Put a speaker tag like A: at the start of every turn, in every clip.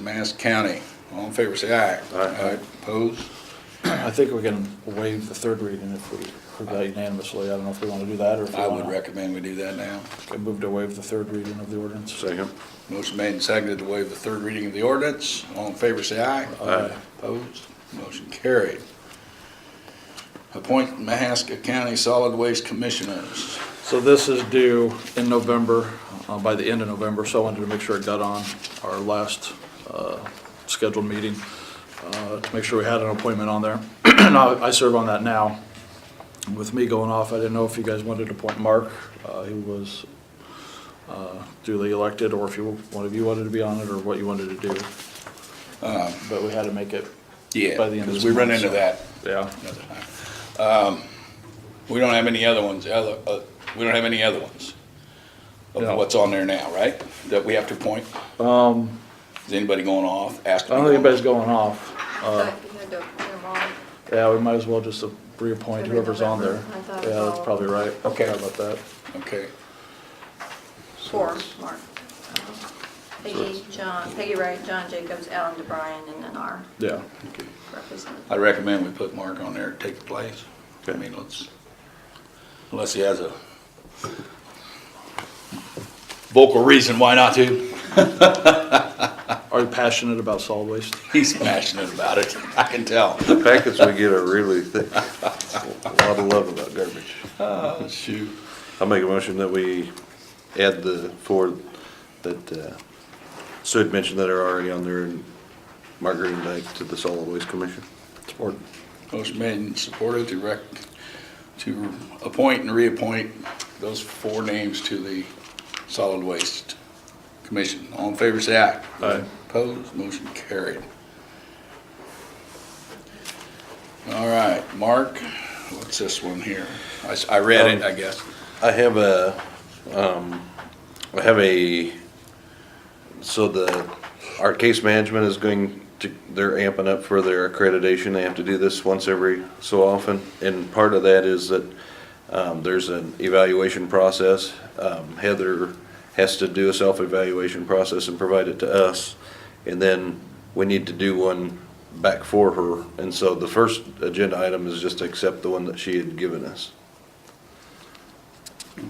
A: Mass County. All in favor, say aye.
B: Aye.
A: Opposed?
C: I think we can waive the third reading if we approve that unanimously. I don't know if we want to do that or if we
A: I
C: want
A: would
C: to.
A: recommend we do that now.
C: Move to waive the third reading of the ordinance.
B: Second.
A: Motion made and seconded to waive the third reading of the ordinance. All in favor, say aye.
B: Aye.
A: Opposed? Motion carried. Appoint Mahaska County Solid Waste Commissioners.
C: So this is due in November, uh, by the end of November, so I wanted to make sure it got on our last uh, scheduled meeting, uh, to make sure we had an appointment on there. And I I serve on that now. With me going off, I didn't know if you guys wanted to appoint Mark, uh, who was uh, duly elected, or if you, one of you wanted to be on it, or what you wanted to do. But we had to make it by the end of this
A: Because we run
C: month,
A: into
C: so-
A: that.
C: Yeah.
A: another time. Um, We don't have any other ones, other, uh, we don't have any other ones
C: No.
A: of what's on there now, right? That we have to appoint? Is anybody going off,
C: I
A: asking?
C: don't think anybody's going off.
D: Thought you had to put 'em on.
C: Yeah, we might as well just uh, reappoint
D: Every
C: whoever's on there.
D: November. I thought it
C: Yeah,
D: was
C: that's
D: all-
C: probably right.
A: Okay.
C: Sorry about that.
A: Okay,
D: Four, Mark. Peggy, John, Peggy Wright, John Jacobs, Alan DeBryan, and then our
C: Yeah.
D: representative.
A: I recommend we put Mark on there to take the place. I mean, let's, unless he has a vocal reason why not to.
C: Are you passionate about solid waste?
A: He's passionate about it, I can tell.
B: The packets we get are really thick. A lot of love about garbage.
A: Oh, shoot.
B: I make a motion that we add the four that uh, Sue had mentioned that are already on there and Margaret and Dyke to the solid waste commission.
C: Support.
A: Motion made and supported to rec, to appoint and reappoint those four names to the Solid Waste Commission. All in favor, say aye.
C: Aye.
A: Opposed, motion carried. All right, Mark, what's this one here? I, s- I read it, I guess.
B: I have a, um, I have a, so the, our case management is going to, they're amping up for their accreditation. They have to do this once every so often. And part of that is that, um, there's an evaluation process. Um, Heather has to do a self-evaluation process and provide it to us. And then we need to do one back for her. And so the first agenda item is just to accept the one that she had given us.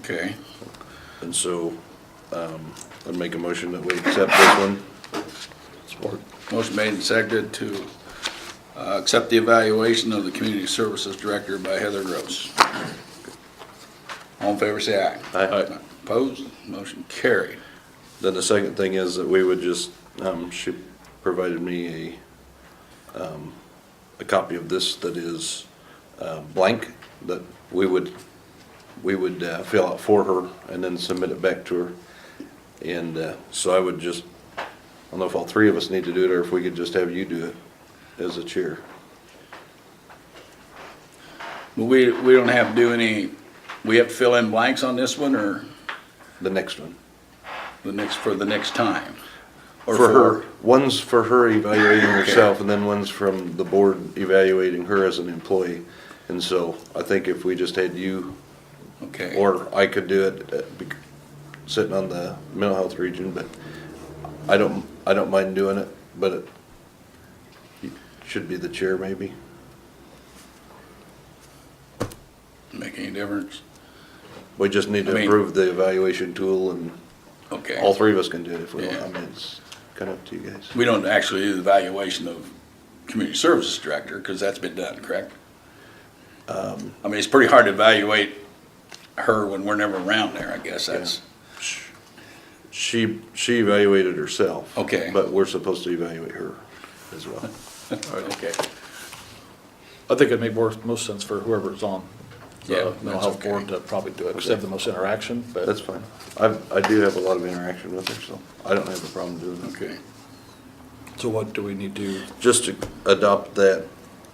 A: Okay,
B: And so, um, I'd make a motion that we accept this one.
C: Support.
A: motion made and seconded to, uh, accept the evaluation of the Community Services Director by Heather Gross. All in favor, say aye.
B: Aye.
A: Opposed, motion carried.
B: Then the second thing is that we would just, um, she provided me a, um, a copy of this that is, uh, blank, that we would, we would, uh, fill out for her and then submit it back to her. And, uh, so I would just, I don't know if all three of us need to do it or if we could just have you do it as a chair.
A: But we, we don't have to do any, we have to fill in blanks on this one or
B: The next one.
A: the next, for the next time? Or
B: For her, one's for her evaluating herself, and then one's from the board evaluating her as an employee. And so I think if we just had you,
A: Okay.
B: or I could do it, uh, bec- sitting on the mental health region, but I don't, I don't mind doing it, but it you should be the chair maybe.
A: Make any difference?
B: We just need
A: I
B: to
A: mean-
B: improve the evaluation tool, and
A: Okay.
B: all three of us can do it if we want.
A: Yeah.
B: I mean, it's kind of up to you guys.
A: We don't actually do the evaluation of community services director because that's been done, correct? I mean, it's pretty hard to evaluate her when we're never around there, I guess. That's,
B: She, she evaluated herself.
A: Okay.
B: But we're supposed to evaluate her as well.
A: okay.
C: I think it'd make more, most sense for whoever's on
A: Yeah,
C: the mental
A: that's
C: health
A: okay.
C: board to probably do it, because they have the most interaction, but.
B: That's fine. I, I do have a lot of interaction with her, so I don't have a problem doing it.
A: Okay.
C: So what do we need to,
B: Just to adopt that,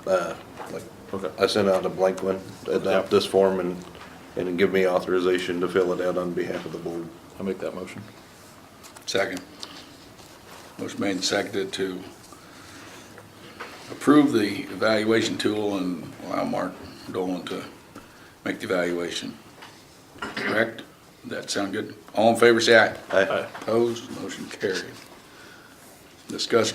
B: uh, like,
C: okay,
B: I sent out a blank one, adopt this form and, and give me authorization to fill it out on behalf of the board.
C: I'll make that motion.
A: Second. Motion made and seconded to approve the evaluation tool and allow Mark Dolan to make the evaluation. Correct? That sound good? All in favor, say aye.
B: Aye.
C: Aye.
A: Opposed? Motion carried. Discuss